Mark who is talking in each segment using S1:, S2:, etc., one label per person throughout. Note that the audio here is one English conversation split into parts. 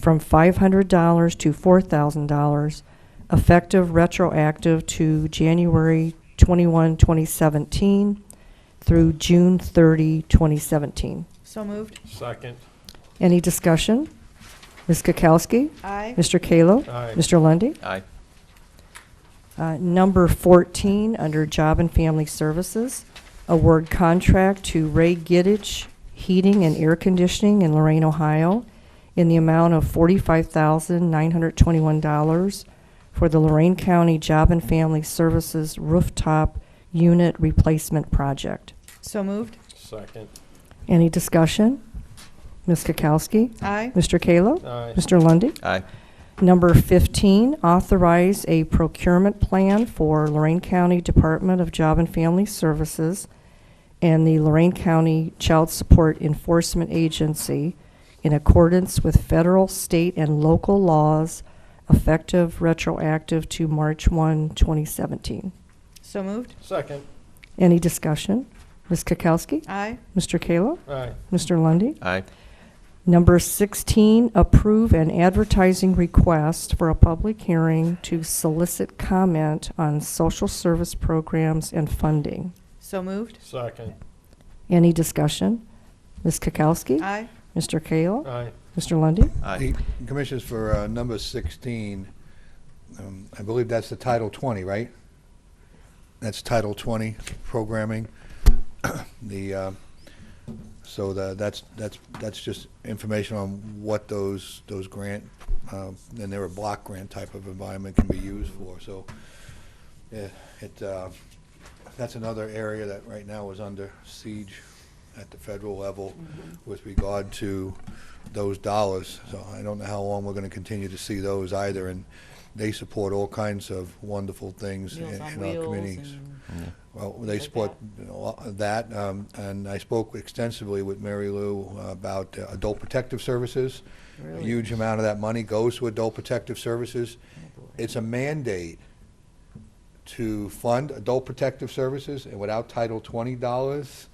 S1: from $500 to $4,000, effective retroactive to January 21, 2017 through June 30, 2017.
S2: So moved.
S3: Second.
S1: Any discussion? Ms. Kukowski?
S2: Aye.
S1: Mr. Kallo?
S3: Aye.
S1: Mr. Lundy.
S4: Aye.
S1: Uh, Number 14, under Job and Family Services, award contract to Ray Giddich Heating and Air Conditioning in Lorraine, Ohio, in the amount of $45,921 for the Lorraine County Job and Family Services Rooftop Unit Replacement Project.
S2: So moved.
S3: Second.
S1: Any discussion? Ms. Kukowski?
S2: Aye.
S1: Mr. Kallo?
S3: Aye.
S1: Mr. Lundy.
S4: Aye.
S1: Number 15, authorize a procurement plan for Lorraine County Department of Job and Family Services and the Lorraine County Child Support Enforcement Agency in accordance with federal, state, and local laws effective retroactive to March 1, 2017.
S2: So moved.
S3: Second.
S1: Any discussion? Ms. Kukowski?
S2: Aye.
S1: Mr. Kallo?
S3: Aye.
S1: Mr. Lundy.
S4: Aye.
S1: Number 16, approve an advertising request for a public hearing to solicit comment on social service programs and funding.
S2: So moved.
S3: Second.
S1: Any discussion? Ms. Kukowski?
S2: Aye.
S1: Mr. Kallo?
S3: Aye.
S1: Mr. Lundy.
S4: Aye.
S5: Hey, Commissioners, for uh, number 16, um, I believe that's the Title 20, right? That's Title 20 programming. The, uh, so the- that's, that's, that's just information on what those, those grant, uh, and they're a block grant type of environment can be used for. So yeah, it, uh, that's another area that right now is under siege at the federal level
S6: Mm-hmm.
S5: with regard to those dollars. So I don't know how long we're going to continue to see those either, and they support all kinds of wonderful things in in
S6: Meals
S5: our
S6: on Wheels
S5: communities.
S6: and
S5: Well, they
S6: like
S5: support you know, a lot of that, um, and I spoke extensively with Mary Lou about uh, adult protective services. A
S6: Really?
S5: huge amount of that money goes to adult protective services. It's a mandate to fund adult protective services, and without Title twenty dollars,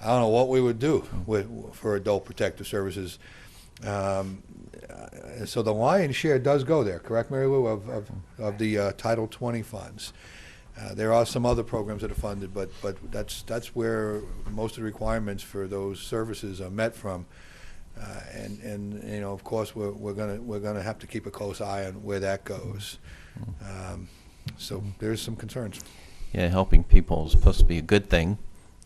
S5: I don't know what we would do with, for adult protective services. Um, uh, so the lion's share does go there, correct, Mary Lou, of, of, of the uh, Title twenty funds. Uh, There are some other programs that are funded, but, but that's, that's where most of the requirements for those services are met from. Uh, And, and, you know, of course, we're, we're gonna, we're gonna have to keep a close eye on where that goes. Um, So there's some concerns.
S4: Yeah, helping people is supposed to be a good thing.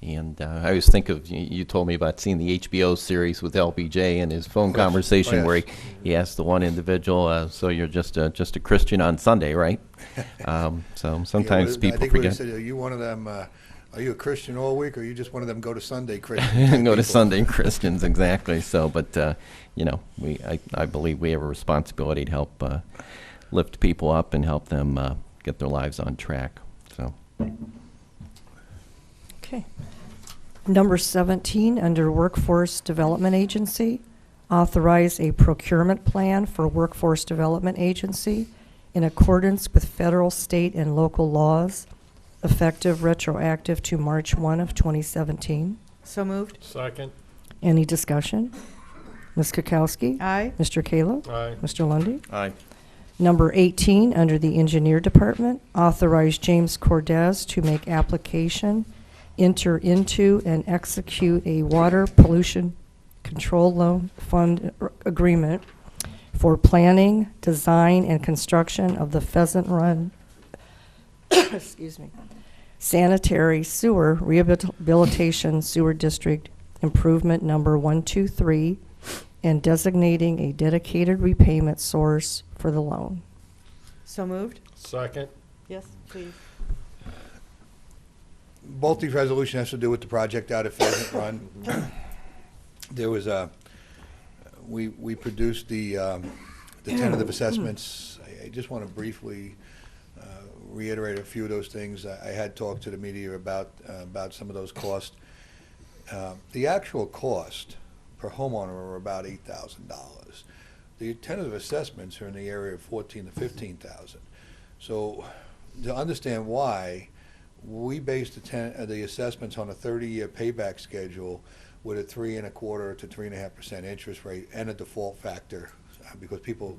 S4: And uh, I always think of, you, you told me about seeing the HBO series with LBJ and his phone
S5: Yes. Oh,
S4: conversation where he,
S5: yes.
S4: he asked the one individual, uh, so you're just a, just a Christian on Sunday, right? Um, so sometimes
S5: Yeah, I
S4: people
S5: think we
S4: forget.
S5: said, are you one of them, uh, are you a Christian all week, or are you just one of them go to Sunday Christians?
S4: go to
S5: people?
S4: Sunday Christians, exactly. So, but, uh, you know, we, I, I believe we have a responsibility to help uh, lift people up and help them uh, get their lives on track. So,
S1: Okay. Number 17, under Workforce Development Agency, authorize a procurement plan for Workforce Development Agency in accordance with federal, state, and local laws, effective retroactive to March 1 of 2017.
S2: So moved.
S3: Second.
S1: Any discussion? Ms. Kukowski?
S2: Aye.
S1: Mr. Kallo?
S3: Aye.
S1: Mr. Lundy.
S4: aye.
S1: Number 18, under the Engineer Department, authorize James Cordez to make application, enter into and execute a water pollution control loan fund ar- agreement for planning, design, and construction of the Pheasant Run, excuse me, sanitary sewer rehabilitation sewer district improvement number 123 and designating a dedicated repayment source for the loan.
S2: So moved.
S3: Second.
S6: Yes, please.
S5: both these resolutions has to do with the project out at Pheasant Run. There was a, we, we produced the, um, the tentative assessments. I- I just want to briefly uh, reiterate a few of those things. I I had talked to the media about, uh, about some of those costs. Uh, The actual cost per homeowner are about eight thousand dollars. The tentative assessments are in the area of fourteen to fifteen thousand. So to understand why, we based the ten, uh, the assessments on a thirty-year payback schedule with a three and a quarter to three and a half percent interest rate and a default factor uh, because people